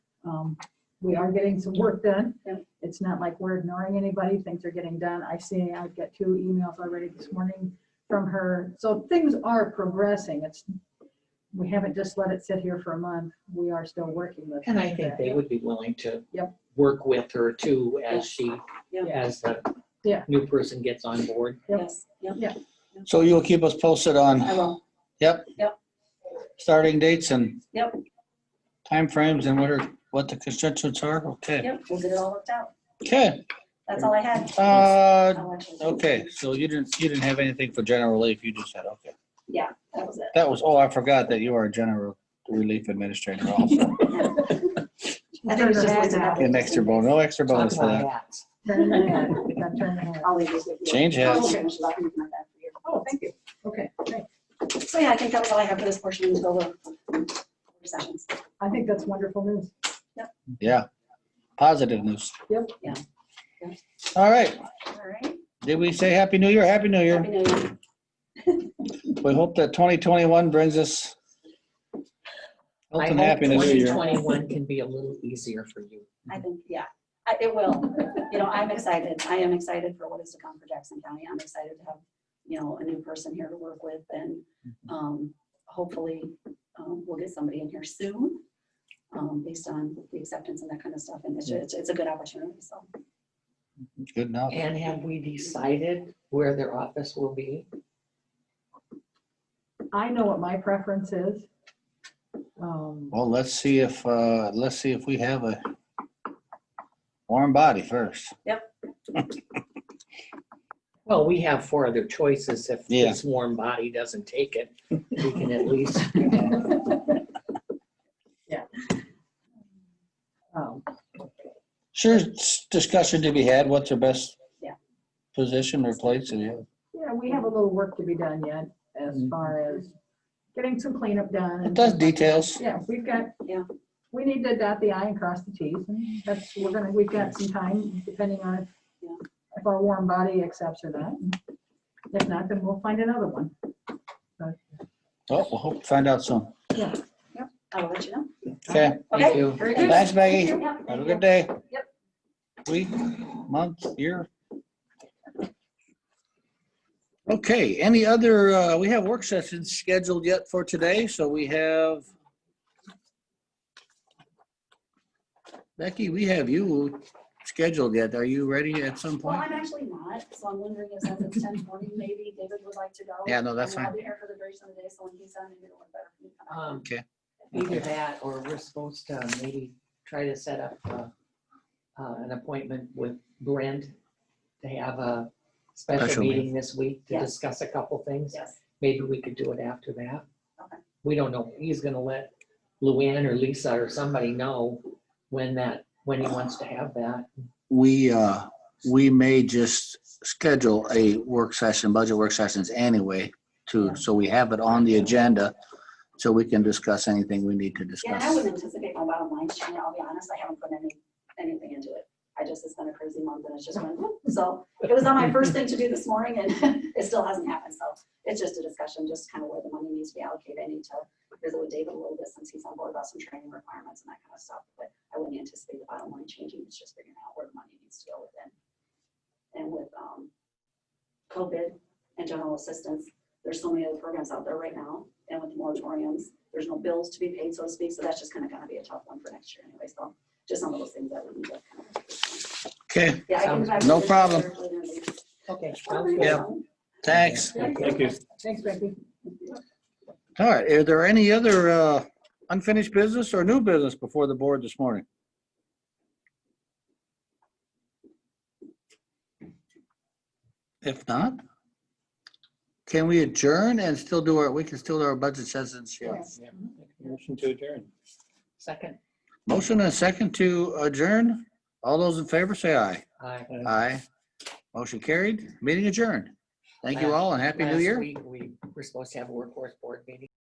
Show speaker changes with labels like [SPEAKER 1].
[SPEAKER 1] um, we are getting some work done.
[SPEAKER 2] Yep.
[SPEAKER 1] It's not like we're ignoring anybody, things are getting done. I see, I've got two emails already this morning from her. So things are progressing. It's, we haven't just let it sit here for a month. We are still working with.
[SPEAKER 3] And I think
[SPEAKER 1] that.
[SPEAKER 3] they would be willing to
[SPEAKER 1] Yep.
[SPEAKER 3] work with her too as she,
[SPEAKER 2] Yep.
[SPEAKER 3] as the
[SPEAKER 1] Yeah.
[SPEAKER 3] new person gets on board.
[SPEAKER 1] Yep.
[SPEAKER 2] Yes, yep,
[SPEAKER 4] So you'll keep us posted
[SPEAKER 2] I
[SPEAKER 4] on
[SPEAKER 2] will.
[SPEAKER 4] starting dates and
[SPEAKER 2] Yep,
[SPEAKER 4] timeframes and what are, what the constituents are? Okay.
[SPEAKER 2] yep, we'll get it all worked out.
[SPEAKER 4] Okay,
[SPEAKER 2] That's all I had.
[SPEAKER 4] uh,
[SPEAKER 2] I'll actually-
[SPEAKER 4] okay, so you didn't, you didn't have anything for general relief, you just said, okay.
[SPEAKER 2] Yeah, that was it.
[SPEAKER 4] That was, oh, I forgot that you are a general relief administrator also.
[SPEAKER 2] I think it's just listed up.
[SPEAKER 4] An extra bonus, no extra
[SPEAKER 3] Talk
[SPEAKER 4] bonus for
[SPEAKER 3] about
[SPEAKER 4] that.
[SPEAKER 3] that.
[SPEAKER 1] Turn your head. Now turn your head.
[SPEAKER 2] I'll leave this with you.
[SPEAKER 4] Change hats.
[SPEAKER 2] I'll finish it up and come back for you.
[SPEAKER 1] Oh, thank you. Okay, great.
[SPEAKER 2] So yeah, I think that was all I have for this portion until the sessions.
[SPEAKER 1] I think that's wonderful news.
[SPEAKER 4] Yeah, positive news.
[SPEAKER 1] Yep.
[SPEAKER 2] Yeah.
[SPEAKER 4] All right,
[SPEAKER 2] All right.
[SPEAKER 4] did we say Happy New Year? Happy New Year.
[SPEAKER 2] Happy New Year.
[SPEAKER 4] We hope that 2021 brings us health
[SPEAKER 3] I
[SPEAKER 4] and
[SPEAKER 3] hope
[SPEAKER 4] happiness.
[SPEAKER 3] 2021 can be a little easier for you.
[SPEAKER 2] I think, yeah, I- it will. You know, I'm excited. I am excited for what is to come for Jackson County. I'm excited to have, you know, a new person here to work with and
[SPEAKER 4] Mm-hmm.
[SPEAKER 2] um, hopefully um, we'll get somebody in here soon um, based on the acceptance and that kind of stuff. And it's, ju- it's, it's a good opportunity, so.
[SPEAKER 4] Good enough.
[SPEAKER 3] And have we decided where their office will be?
[SPEAKER 1] I know what my preference is. Um,
[SPEAKER 4] Well, let's see if, uh, let's see if we have a warm body first.
[SPEAKER 3] Well, we have four other choices. If
[SPEAKER 4] Yeah.
[SPEAKER 3] this warm body doesn't take it, we can at least,
[SPEAKER 1] um,
[SPEAKER 4] Sure, it's discussion to be had, what's your best
[SPEAKER 2] Yeah.
[SPEAKER 4] position or place? and yeah.
[SPEAKER 1] Yeah, we have a little work to be done yet as far as getting some cleanup done.
[SPEAKER 4] It
[SPEAKER 1] and
[SPEAKER 4] does
[SPEAKER 1] things like that.
[SPEAKER 4] details.
[SPEAKER 1] Yeah, we've got,
[SPEAKER 2] Yeah.
[SPEAKER 1] we need to dot the i and cross the t's. and That's, we're gonna, we've got some time depending on if-
[SPEAKER 2] Yeah.
[SPEAKER 1] if our warm body accepts or not. And If not, then we'll find another one.
[SPEAKER 4] Oh, we'll hope, to find out soon.
[SPEAKER 2] I will let you know.
[SPEAKER 4] Okay,
[SPEAKER 3] thank you.
[SPEAKER 2] Very good.
[SPEAKER 4] thanks Maggie.
[SPEAKER 2] Thank you. Yeah,
[SPEAKER 4] Have a
[SPEAKER 2] thank
[SPEAKER 4] good
[SPEAKER 2] you.
[SPEAKER 4] day. Week, month, year. Okay, any other, uh, we have work sessions scheduled yet for today, so we have. Becky, we have you scheduled yet. Are you ready at some
[SPEAKER 2] Well,
[SPEAKER 4] point?
[SPEAKER 2] I'm actually not, so I'm wondering if since it's ten forty, maybe David would like to go.
[SPEAKER 4] Yeah, no, that's
[SPEAKER 2] I mean, I'll
[SPEAKER 4] fine.
[SPEAKER 2] be here for the duration of the day, so when he's done, maybe it'll work better. for me to come out.
[SPEAKER 3] Um,
[SPEAKER 4] Okay.
[SPEAKER 3] Either that, or we're supposed to maybe try to set up uh, uh, an appointment with Brent to have a special
[SPEAKER 4] Special
[SPEAKER 3] meeting this week to
[SPEAKER 2] Yeah.
[SPEAKER 3] discuss a couple things.
[SPEAKER 2] Yes,
[SPEAKER 3] Maybe we could do it after that.
[SPEAKER 2] Okay.
[SPEAKER 3] We don't know. He's gonna let Luann or Lisa or somebody know when that, when he wants to have that.
[SPEAKER 4] We, uh, we may just schedule a work session, budget work sessions anyway, too, so we have it on the agenda. So we can discuss anything we need
[SPEAKER 2] yeah,
[SPEAKER 4] to
[SPEAKER 2] and
[SPEAKER 4] discuss.
[SPEAKER 2] I wouldn't anticipate my bottom line change, I'll be honest, I haven't put any, anything into it. I just, it's been a crazy month and it's just went, whoop. so it was on my first thing to do this morning and it still hasn't happened, so it's just a discussion, just kind of where the money needs to be allocated. I need to visit with David a little bit since he's on board about some training requirements and that kind of stuff, but I wouldn't anticipate the bottom line changing, it's just figuring out where the money needs to go within. And with, um, COVID and general assistance, there's so many other programs out there right now, and with the moratoriums, there's no bills to be paid, so to speak, so that's just kind of gonna be a tough one for next year anyway, so just some of those things that we need to. kind of-
[SPEAKER 4] Okay.
[SPEAKER 2] Yeah, I can- I can-
[SPEAKER 4] No problem.
[SPEAKER 3] Okay.
[SPEAKER 4] Yeah. Thanks.
[SPEAKER 3] Thank
[SPEAKER 5] you.
[SPEAKER 1] Thanks, Becky.
[SPEAKER 4] All right, are there any other uh, unfinished business or new business before the board this morning? If not, can we adjourn and still do our, we can still do our budget sessions? yeah.
[SPEAKER 5] Motion to adjourn.
[SPEAKER 3] Second.
[SPEAKER 4] Motion and a second to adjourn. All those in favor say aye.
[SPEAKER 3] Aye.
[SPEAKER 4] Aye. Motion carried, meeting adjourned. Thank you
[SPEAKER 3] Last-
[SPEAKER 4] all and happy new
[SPEAKER 3] Last
[SPEAKER 4] year.
[SPEAKER 3] week, We were supposed to have a workforce board meeting.